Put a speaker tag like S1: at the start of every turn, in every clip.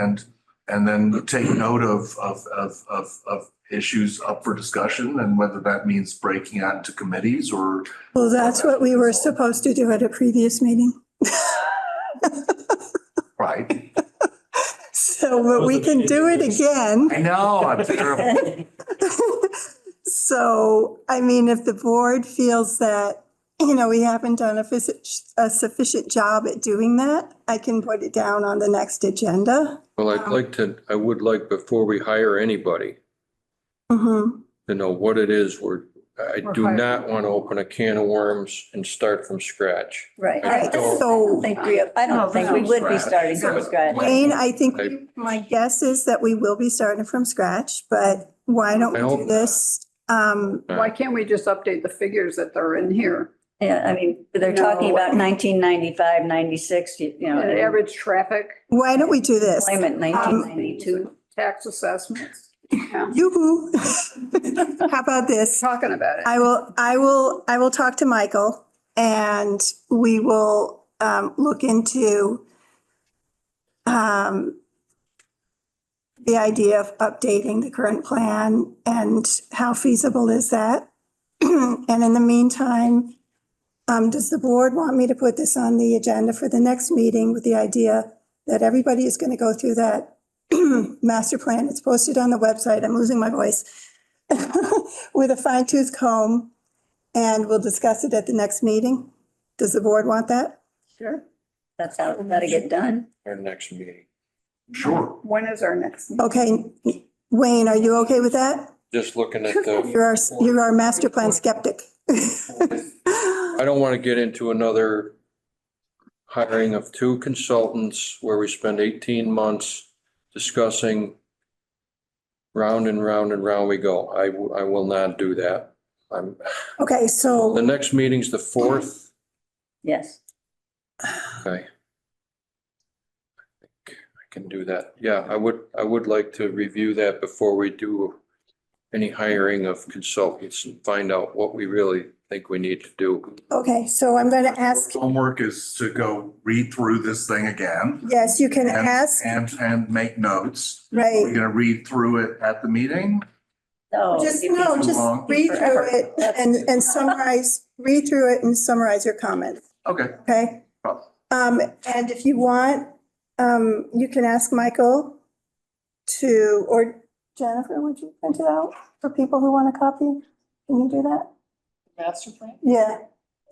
S1: And, and then take note of, of, of, of, of issues up for discussion and whether that means breaking out into committees or
S2: Well, that's what we were supposed to do at a previous meeting.
S1: Right.
S2: So, but we can do it again.
S1: I know, I'm terrible.
S2: So, I mean, if the board feels that, you know, we haven't done a sufficient, a sufficient job at doing that, I can put it down on the next agenda.
S3: Well, I'd
S2: Um,
S3: like to, I would like, before we hire anybody,
S2: Mhm.
S3: to know what it is we're, I
S4: We're
S3: do
S4: hiring.
S3: not want to open a can of worms and start from scratch.
S4: Right.
S2: All right, so
S4: think we, I
S1: No,
S4: don't think we
S1: from
S4: would be
S1: scratch.
S4: starting from scratch.
S2: Wayne, I think
S3: I-
S2: my guess is that we will be starting from scratch, but why don't
S3: I
S2: we
S3: hope
S2: do
S3: not.
S2: this? Um,
S3: Uh,
S5: Why can't we just update the figures that are in here?
S4: Yeah, I mean, they're talking about 1995, 96, you you know,
S5: And
S4: they
S5: average traffic, uh,
S2: why don't we do this? Um,
S4: claim it 1992.
S5: tax assessments, Yeah,
S2: Yoo-hoo. How about this?
S5: talking about it.
S2: I will, I will, I will talk to Michael and we will um, look into um, the idea of updating the current plan and how feasible is that? And in the meantime, um, does the board want me to put this on the agenda for the next meeting with the idea that everybody is going to go through that master plan? It's posted on the website. I'm losing my voice. with a fine tooth comb and we'll discuss it at the next meeting. Does the board want that?
S5: Sure.
S4: That's how it's gotta get done.
S3: Our next meeting,
S1: Sure.
S5: When is our next? meeting?
S2: Okay, Wayne, are you okay with that?
S3: just looking at the,
S2: You're our, you're our master plan skeptic.
S3: I don't want to get into another hiring of two consultants where we spend eighteen months discussing round and round and round we go. I, w- I will not do that. I'm,
S2: Okay,
S3: the
S2: so,
S3: next meeting's the fourth.
S4: Yes.
S3: Okay. I think I can do that. Yeah, I would, I would like to review that before we do any hiring of consultants and find out what we really think we need to do.
S2: okay, so I'm going to ask,
S1: Homework is to go read through this thing again
S2: yes, you can
S1: and,
S2: ask,
S1: and, and make notes. We're
S2: right?
S1: gonna read through it at the meeting.
S4: No.
S2: Just,
S4: it'd be
S2: no,
S1: too
S2: just
S1: long.
S2: read
S4: Forever.
S2: through it and, and summarize, read through it and summarize your comments.
S1: Okay,
S2: Okay.
S1: Problem.
S2: Um, and if you want, um, you can ask Michael to, or Jennifer, would you print it out for people who want a copy? Can you do that?
S6: Master plan?
S2: Yeah,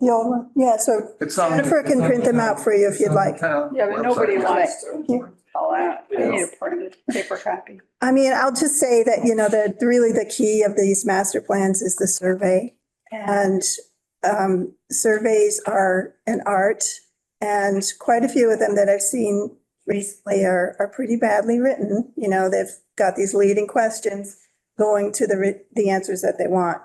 S2: the old one. Yeah, so
S1: it's on.
S2: Jennifer can print them out for you if you'd like.
S5: Yeah, but nobody wants to
S2: you.
S5: call out. I need a printed paper copy.
S2: I mean, I'll just say that, you know, that really the key of these master plans is the survey. And um, surveys are an art. And quite a few of them that I've seen recently are, are pretty badly written. You know, they've got these leading questions going to the, re- the answers that they want.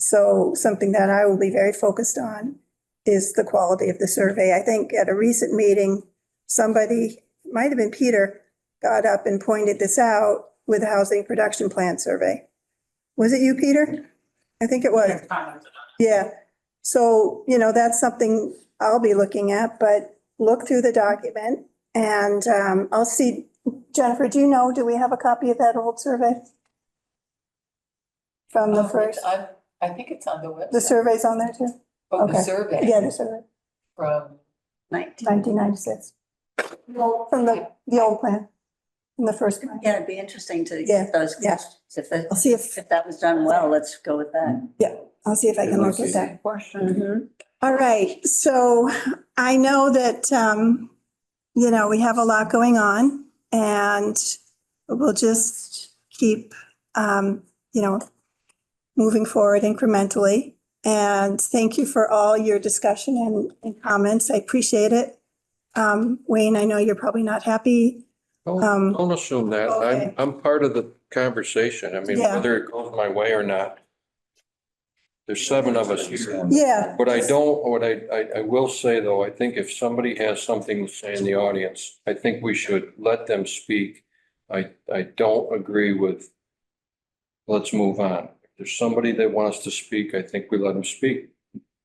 S2: So something that I will be very focused on is the quality of the survey. I think at a recent meeting, somebody, might have been Peter, got up and pointed this out with the housing production plan survey. Was it you, Peter? I think it was. Yeah. So, you know, that's something I'll be looking at, but look through the document and um, I'll see. Jennifer, do you know, do we have a copy of that old survey? From the
S6: Um,
S2: first,
S6: I, I think it's on the website.
S2: the survey's on there too?
S6: Oh,
S2: okay.
S6: the survey.
S2: Yeah, the survey,
S6: From,
S4: Nineteen.
S2: nineteen ninety-six. From the, the old plan, from the first plan.
S4: Yeah, it'd be interesting to
S2: Yeah,
S4: get those
S2: yeah.
S4: questions. If that,
S2: I'll see if,
S4: if that was done well, let's go with that.
S2: I'll see if I can look at that.
S5: Question.
S4: Mhm.
S2: All right, so I know that, um, you know, we have a lot going on and we'll just keep, um, you know, moving forward incrementally. And thank you for all your discussion and, and comments. I appreciate it. Um, Wayne, I know you're probably not happy. Um,
S3: Don't don't assume that.
S2: okay.
S3: I'm, I'm part of the conversation. I mean,
S2: Yeah.
S3: whether it goes my way or not. There's seven of us here.
S2: Yeah,
S3: What I don't, what I, I, I will say though, I think if somebody has something to say in the audience, I think we should let them speak. I, I don't agree with, let's move on. If there's somebody that wants to speak, I think we let them speak.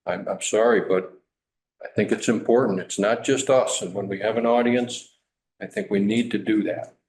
S3: I'm, I'm sorry, but I think it's important. It's not just us. And when we have an audience, I think we need to do that.